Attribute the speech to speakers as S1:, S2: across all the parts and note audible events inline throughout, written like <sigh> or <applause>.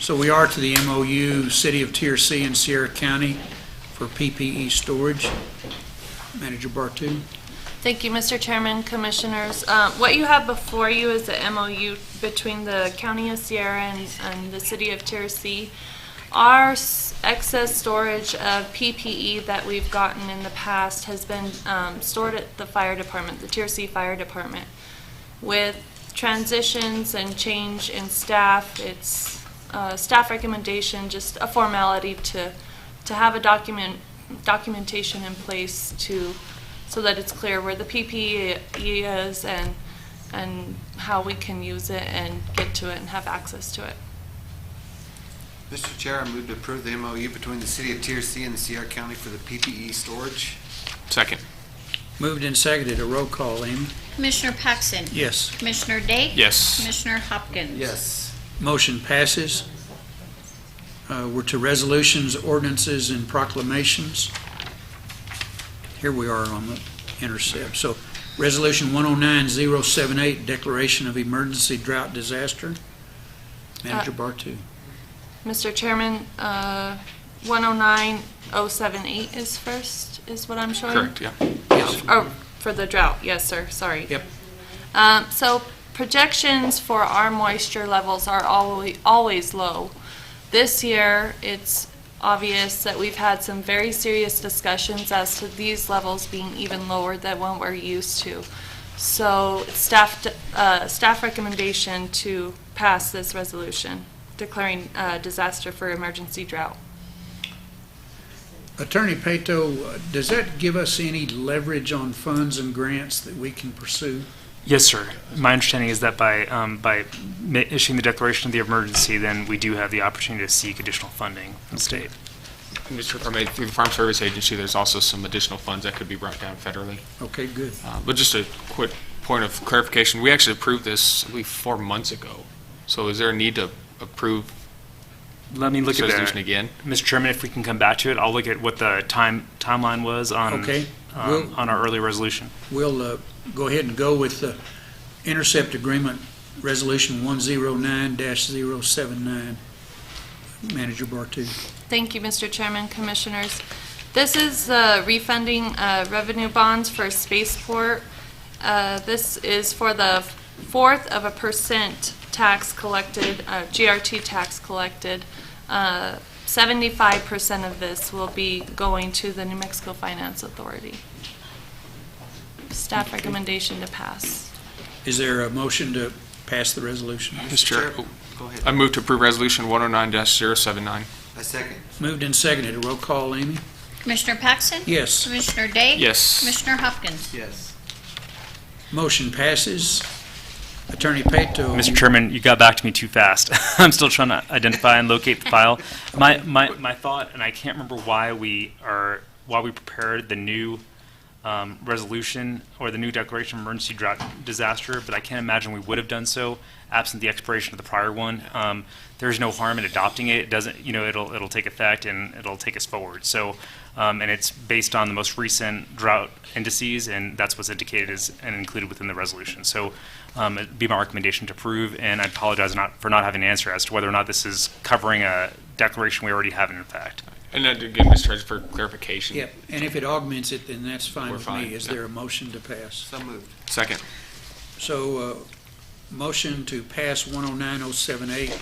S1: So we are to the MOU, City of TRC and Sierra County for PPE storage. Manager Bartu?
S2: Thank you, Mr. Chairman, Commissioners. Uh, What you have before you is the MOU between the County of Sierra and- and the City of Tercee. Our s- excess storage of PPE that we've gotten in the past has been um, stored at the fire department, the Tercee Fire Department. With transitions and change in staff, it's uh, staff recommendation, just a formality to, to have a document, documentation in place to, so that it's clear where the PPE is and, and how we can use it and get to it and have access to it.
S3: Mr. Chair, I move to approve the MOU between the City of Tier-C and the Sierra County for the PPE storage.
S4: Second.
S1: Moved and seconded, a roll call, Amy?
S5: Commissioner Paxson.
S1: Yes.
S5: Commissioner Day.
S4: Yes.
S5: Commissioner Hopkins.
S3: Yes.
S1: Motion passes. Uh, We're to resolutions, ordinances, and proclamations. Here we are on the intercept. So, Resolution 109078, Declaration of Emergency Drought Disaster. Manager Bartu.
S2: Mr. Chairman, uh, 109078 is first, is what I'm showing?
S4: Correct, yeah.
S1: Yes.
S2: Oh, for the drought, yes, sir, sorry.
S1: Yep.
S2: Um, so projections for our moisture levels are always, always low. This year, it's obvious that we've had some very serious discussions as to these levels being even lower than what we're used to. So staff, uh, staff recommendation to pass this resolution declaring, uh, disaster for emergency drought.
S1: Attorney Peto, uh, does that give us any leverage on funds and grants that we can pursue?
S6: Yes, sir. My understanding is that by, um, by ma- issuing the declaration of the emergency, then we do have the opportunity to seek additional funding from the state.
S4: Mr. Department, through the Farm Service Agency, there's also some additional funds that could be brought down federally.
S1: Okay, good.
S4: Uh, But just a quick point of clarification, we actually approved this, I believe, four months ago. So is there a need to approve
S6: Let me look
S4: this
S6: at
S4: resolution
S6: that.
S4: again?
S6: Mr. Chairman, if we can come back to it, I'll look at what the time, timeline was on,
S1: Okay.
S6: um,
S1: We'll-
S6: on our early resolution.
S1: We'll uh, go ahead and go with the intercept agreement, Resolution 109-079. Manager Bartu.
S2: Thank you, Mr. Chairman, Commissioners. This is uh, refunding uh, revenue bonds for Spaceport. Uh, This is for the fourth of a percent tax collected, uh, GRT tax collected. Uh, 75% of this will be going to the New Mexico Finance Authority. Staff recommendation to pass.
S1: Is there a motion to pass the resolution?
S4: Mr. Chair, oh,
S3: Go
S4: I
S3: ahead.
S4: move to approve Resolution 109-079.
S3: I second.
S1: Moved and seconded. A roll call, Amy?
S5: Commissioner Paxson.
S1: Yes.
S5: Commissioner Day.
S4: Yes.
S5: Commissioner Hopkins.
S3: Yes.
S1: Motion passes. Attorney Peto.
S6: Mr. Chairman, you got back to me too fast. <laughs> I'm still trying to identify and locate the file. My, my, my thought, and I can't remember why we are, why we prepared the new um, resolution or the new declaration of emergency drought disaster, but I can't imagine we would have done so absent the expiration of the prior one. Um, There's no harm in adopting it. It doesn't, you know, it'll, it'll take effect and it'll take us forward. So, um, and it's based on the most recent drought indices, and that's what's indicated as, and included within the resolution. So um, it'd be my recommendation to approve, and I apologize not, for not having an answer as to whether or not this is covering a declaration we already have in effect.
S4: And then again, Mr. Chair, for clarification.
S1: Yep, and if it augments it, then that's fine
S4: We're
S1: with
S4: fine,
S1: me. Is
S4: yeah.
S1: there a motion to pass?
S3: So moved.
S4: Second.
S1: So, uh, motion to pass 109078,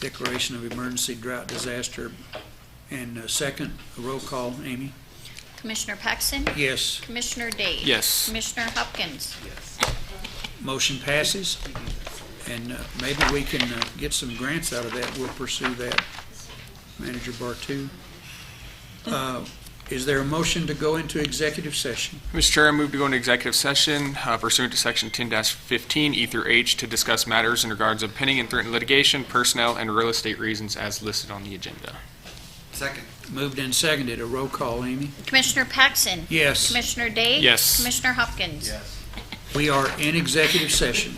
S1: declaration of emergency drought disaster. And uh, second, a roll call, Amy?
S5: Commissioner Paxson.
S1: Yes,
S5: Commissioner Day.
S4: Yes.
S5: Commissioner Hopkins.
S1: motion passes. And uh, maybe we can uh, get some grants out of that. We'll pursue that. Manager Bartu. Uh, Is there a motion to go into executive session?
S4: Mr. Chair, I move to go into executive session uh, pursuant to Section 10-15 E through H to discuss matters in regards of pending and threatened litigation, personnel, and real estate reasons as listed on the agenda.
S3: Second.
S1: Moved and seconded. A roll call, Amy?
S5: Commissioner Paxson.
S1: Yes,
S5: Commissioner Day.
S4: Yes.
S5: Commissioner Hopkins.
S3: Yes.
S1: we are in executive session.